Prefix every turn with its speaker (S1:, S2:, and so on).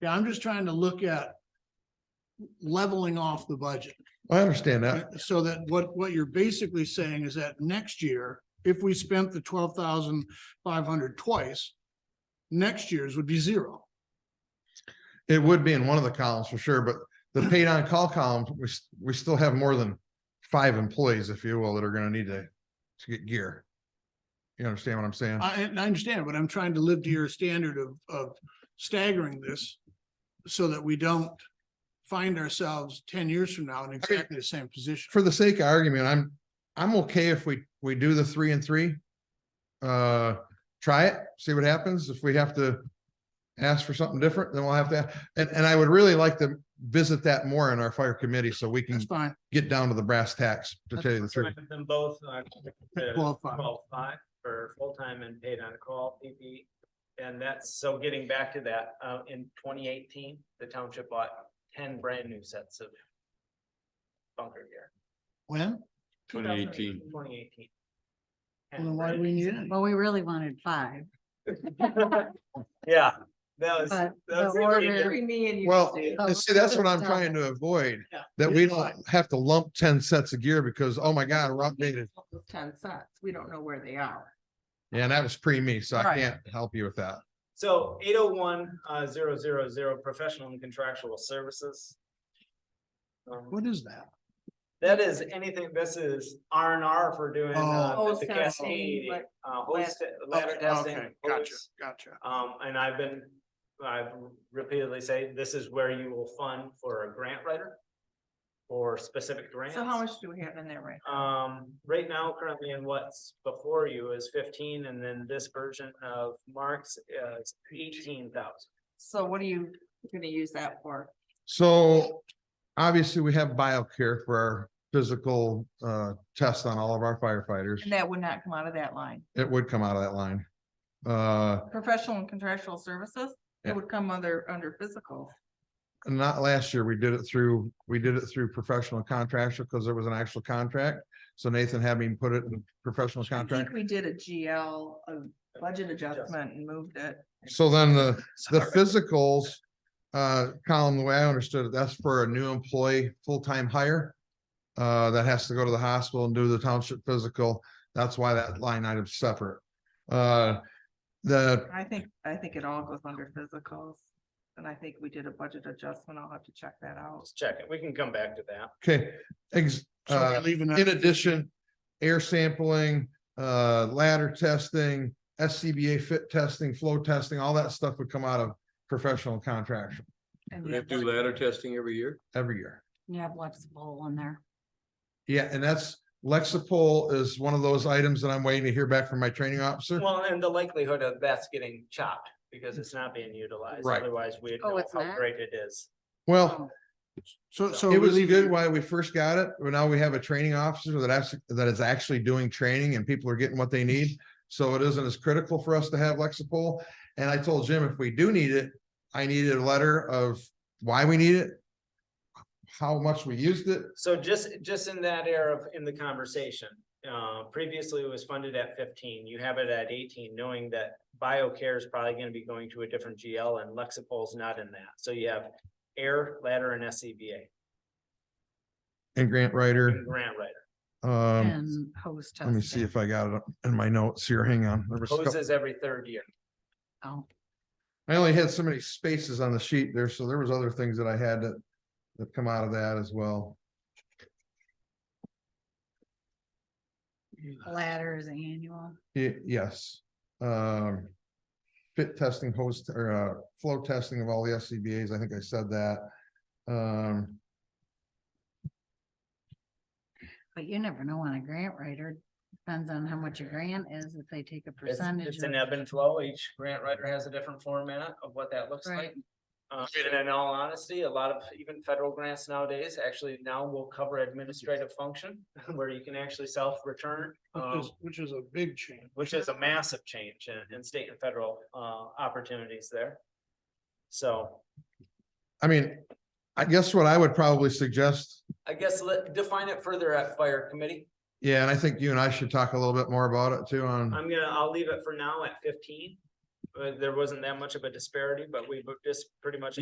S1: Yeah, I'm just trying to look at leveling off the budget.
S2: I understand that.
S1: So that what, what you're basically saying is that next year, if we spent the twelve thousand five hundred twice, next year's would be zero.
S2: It would be in one of the columns for sure, but the paid on call column, we, s- we still have more than five employees, if you will, that are gonna need to, to get gear. You understand what I'm saying?
S1: I, and I understand, but I'm trying to live to your standard of, of staggering this so that we don't find ourselves ten years from now in exactly the same position.
S2: For the sake of argument, I'm, I'm okay if we, we do the three and three. Uh, try it, see what happens. If we have to ask for something different, then we'll have to, and, and I would really like to visit that more in our fire committee so we
S1: That's
S2: can
S1: fine,
S2: get down to the brass tacks, to tell you the truth.
S3: Recommend Them both are
S1: qualified.
S3: twelve five for full-time and paid on call PP. E. And that's, so getting back to that, uh, in twenty eighteen, the township bought ten brand new sets of bunker gear.
S1: When?
S4: Twenty eighteen.
S3: Twenty eighteen.
S1: Well, then why do we need it?
S5: Well, we really wanted five.
S3: Yeah, that was.
S5: But
S3: that was
S5: the
S3: really
S5: order-
S3: good.
S6: Between me and you.
S2: Well,
S6: Sue.
S5: Oh,
S2: and see, that's what I'm
S5: stop.
S2: trying to avoid,
S6: Yeah.
S2: that we don't have to lump ten sets of gear because, oh my God, we're outdated.
S6: Ten cents, we don't know where they are.
S2: Yeah, and that was pre me, so I
S6: Right.
S2: can't help you with that.
S3: So eight oh one, uh, zero, zero, zero, professional and contractual services. Um,
S1: What is that?
S3: That is anything, this is R and R for doing,
S1: Oh.
S3: uh,
S6: Oh,
S3: the
S6: testing,
S3: cascade,
S6: like-
S3: uh, hose, te- ladder
S1: Okay,
S3: testing.
S1: Oh, okay, Gotcha,
S3: hose.
S1: gotcha.
S3: Um, and I've been, I repeatedly say, this is where you will fund for a grant writer. Or specific grants.
S6: So how much do we have in there right?
S3: Um, right now, currently in what's before you is fifteen, and then this version of Mark's is eighteen thousand.
S6: So what are you gonna use that for?
S2: So obviously we have BioCare for our physical uh test on all of our firefighters.
S6: And that would not come out of that line.
S2: It would come out of that line. Uh,
S6: Professional and contractual services,
S2: Yeah.
S6: it would come under, under physical.
S2: not last year, we did it through, we did it through professional contractor because there was an actual contract. So Nathan had me put it in professional
S6: I
S2: contract.
S6: think we did a GL, a budget adjustment and moved it.
S2: So then the, the physicals, uh, column, the way I understood it, that's for a new employee, full-time hire. Uh, that has to go to the hospital and do the township physical. That's why that line item's separate. Uh, the,
S6: I think, I think it all goes under physicals. And I think we did a budget adjustment. I'll have to check that out.
S3: Let's check it. We can come back to that.
S2: okay, ex,
S1: So we're
S2: uh,
S1: leaving that-
S2: in addition, air sampling, uh, ladder testing, SCBA fit testing, flow testing, all that stuff would come out of professional contractual
S6: And
S4: We
S6: yeah,
S4: have to do ladder testing every year.
S2: every year.
S5: You have Lexipol in there.
S2: Yeah, and that's Lexipol is one of those items that I'm waiting to hear back from my training officer.
S3: Well, and the likelihood of that's getting chopped because it's not being utilized.
S2: Right.
S3: Otherwise, we'd
S5: Oh,
S3: know
S5: it's
S3: how
S5: not?
S3: great it is.
S2: Well,
S1: So, so.
S2: it
S1: we
S2: was
S1: leave
S2: good while we first got it, but now we have a training officer that actually, that is actually doing training and people are getting what they need. So it isn't as critical for us to have Lexipol. And I told Jim, if we do need it, I needed a letter of why we need it, how much we used it,
S3: So just, just in that era of, in the conversation, uh, previously it was funded at fifteen, you have it at eighteen, knowing that BioCare is probably gonna be going to a different GL and Lexipol's not in that. So you have air, ladder and E SCBA,
S2: and grant writer,
S3: and grant writer.
S2: um,
S5: And host
S2: let me see
S5: testing.
S2: if I got it up in my notes here. Hang on. There was a couple-
S3: Hoses every third year.
S5: Oh,
S2: I only had so many spaces on the sheet there, so there was other things that I had that, that come out of that as well.
S5: ladder is annual.
S2: Ye- yes, um. Fit testing host or uh, flow testing of all the SCBA's, I think I said that. Um,
S5: But you never know on a grant writer. Depends on how much a grant is, if they take a
S3: It's,
S5: percentage.
S3: it's
S5: of-
S3: an ebb and flow. Each grant writer has a different format of what that looks like.
S5: Right.
S3: Uh, and in all honesty, a lot of even federal grants nowadays actually now will cover administrative function where you can actually self-return. um,
S1: Which is, which is a big change.
S3: which is a massive change in, in state and federal, uh, opportunities there. So
S2: I mean, I guess what I would probably suggest,
S3: I guess let, define it further at fire committee.
S2: yeah, and I think you and I should talk a little bit more about it too on,
S3: I'm gonna, I'll leave it for now at fifteen. Uh, there wasn't that much of a disparity, but we just pretty much